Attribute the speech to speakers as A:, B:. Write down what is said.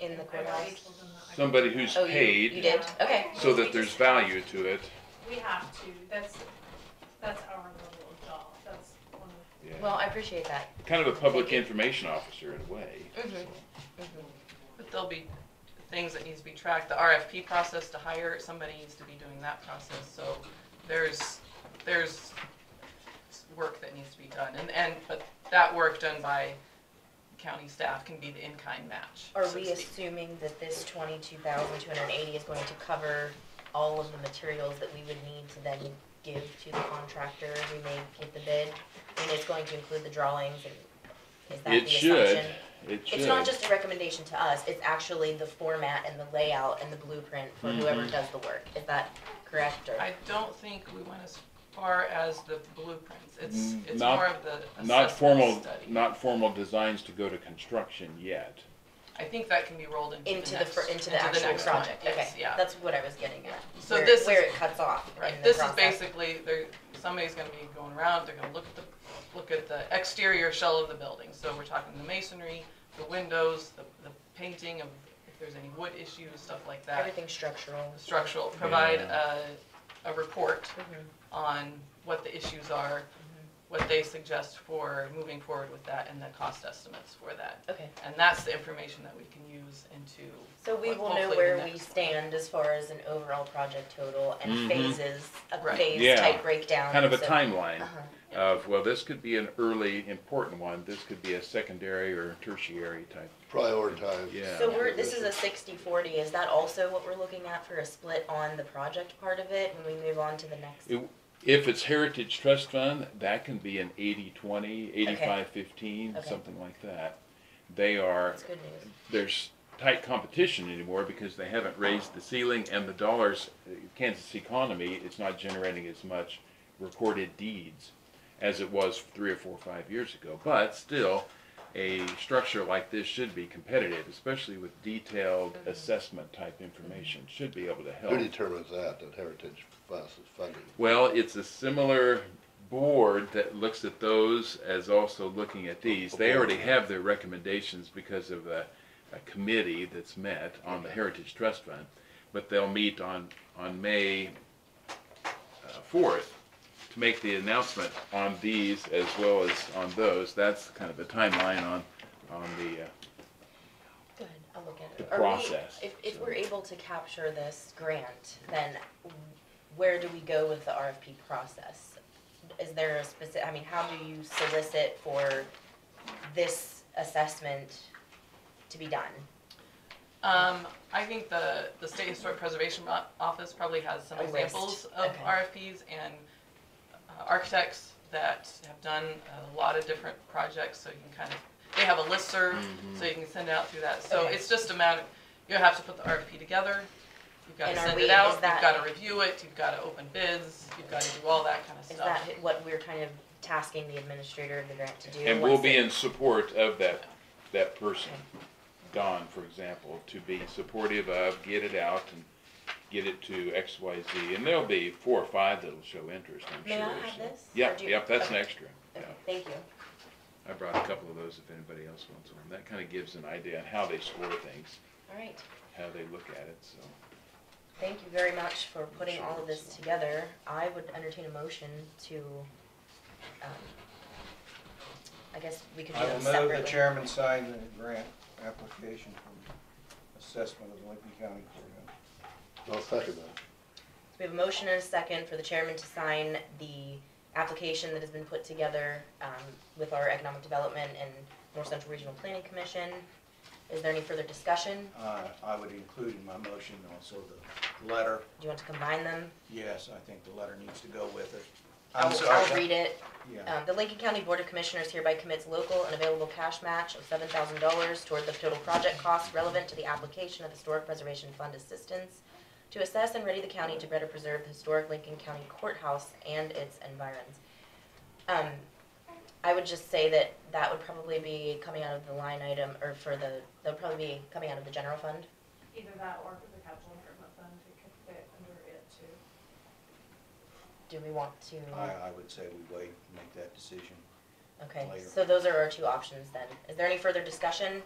A: in the
B: I
A: courthouse?
B: labeled them that I-
C: Somebody who's
A: Oh, you, you
C: paid
A: did? Okay.
C: so that there's value to it.
B: We have to, that's, that's our level of job, that's one of,
C: Yeah.
A: Well, I appreciate that.
C: Kind of a public information officer in a way.
A: Mhm.
D: But there'll be things that needs to be tracked, the RFP process to hire, somebody needs to be doing that process, so there's, there's work that needs to be done, and, and, but that work done by county staff can be the in-kind match.
A: Are
D: so to
A: we
D: speak.
A: assuming that this twenty-two thousand two hundred and eighty is going to cover all of the materials that we would need to then give to the contractor who may get the bid? I mean, it's going to include the drawings and is that the
C: It
A: assumption?
C: should, it should.
A: It's not just a recommendation to us, it's actually the format and the layout and the blueprint for whoever
C: Mhm.
A: does the work. Is that correct or?
D: I don't think we went as far as the blueprints, it's,
C: Mm,
D: it's
C: not-
D: more of the
C: Not formal,
D: assessment study.
C: not formal designs to go to construction yet.
D: I think that can be rolled into the
A: Into the,
D: next-
A: fir- into the actual
D: next one,
A: project, okay.
D: yes, yeah.
A: That's what I was getting at.
D: So
A: where-
D: this
A: Where
D: is-
A: it cuts off in
D: Right,
A: the
D: this is
A: process.
D: basically, they're, somebody's gonna be going around, they're gonna look at the, look at the exterior shell of the building. So we're talking the masonry, the windows, the, the painting of, if there's any wood issues, stuff like that.
A: Everything structural.
D: Structural, provide a,
C: Yeah.
D: a report
A: Mm-hmm.
D: on what the issues are, what they suggest for moving forward with that, and the cost estimates for that.
A: Okay,
D: And that's the information that we can use into.
A: so we
D: what-
A: will know
D: hopefully the
A: where we
D: next-
A: stand as far as an overall project total and
C: Mhm.
A: phases, a
D: Right.
A: phase
C: Yeah.
A: type breakdown.
C: Kind of a
A: so-
C: timeline
A: Uh-huh.
C: of, well, this could be an early important one, this could be a secondary or tertiary type,
E: Prioritize.
C: yeah.
A: So we're, this is a sixty forty, is that also what we're looking at for a split on the project part of it when we move on to the next?
C: It- If it's Heritage Trust Fund, that can be an 80-20, 85-15,
A: Okay.
C: something like that. They are,
A: That's good news.
C: there's tight competition anymore because they haven't raised the ceiling and the dollars, Kansas economy is not generating as much recorded deeds as it was three or four, or five years ago. But still, a structure like this should be competitive, especially with detailed assessment type information, should be able to help.
E: Who determines that, that Heritage Bus is funding?
C: Well, it's a similar board that looks at those as also looking at these. They already have their recommendations because of a, a committee that's met on the Heritage Trust Fund. But they'll meet on, on May uh, fourth to make the announcement on these as well as on those. That's kind of a timeline on, on the, uh,
A: Good, I'll look at it.
C: The
A: Are we-
C: process,
A: If, if
C: so.
A: we're able to capture this grant, then where do we go with the RFP process? Is there a specific, I mean, how do you solicit for this assessment to be done?
D: Um, I think the, the State Historic Preservation O- Office probably has some
A: A list,
D: examples of
A: Oh, okay.
D: RFPs and uh, architects that have done a lot of different projects, so you can kind of, they have a listserv, so you can send it out through that. So
A: Okay.
D: it's just a matter, you'll have to put the RFP together, you've gotta
A: And are
D: send
A: we- is
D: it out, you've
A: that-
D: gotta review it, you've gotta open bids, you've gotta do all that kind of
A: Is
D: stuff.
A: that what we're kind of tasking the administrator of the grant to do?
C: and we'll
A: once
C: be
A: it-
C: in support of that, that person. Don, for example, to be supportive of, get it out and get it to X, Y, Z. And there'll be four or five that'll show interest, I'm sure.
A: May I have
C: so-
A: this? Or
C: Yep,
A: do you-
C: yep, that's an
A: okay.
C: extra. Yeah.
A: Okay, Thank you.
C: I brought a couple of those if anybody else wants one. That kind of gives an idea on how they score things,
A: All right.
C: how they look at it, so.
A: Thank you very much for putting all of this together. I would entertain a motion to, um, I guess we could do
F: I
A: them
F: will move
A: separately.
F: the chairman sign the grant application for assessment of the Lincoln County Courthouse.
E: I'll second that.
A: We have a motion and a second for the chairman to sign the application that has been put together, um, with our Economic Development and North Central Regional Planning Commission. Is there any further discussion?
F: Uh, I would include in my motion also the letter.
A: Do you want to combine them?
F: Yes, I think the letter needs to go with it.
A: I'll-
F: I'm sorry.
A: I'll read it.
F: Yeah,
A: Um, the Lincoln County Board of Commissioners hereby commits local and available cash match of seven thousand dollars toward the total project cost relevant to the application of Historic Preservation Fund assistance to assess and ready the county to better preserve the historic Lincoln County Courthouse and its environs. Um, I would just say that that would probably be coming out of the line item, or for the, that would probably be coming out of the general fund.
B: either that or the capital improvement fund, it could fit under it too.
A: Do we want to?
F: I, I would say we wait, and make that decision.
A: Okay,
F: later.
A: so those are our two options then. Is there any further discussion?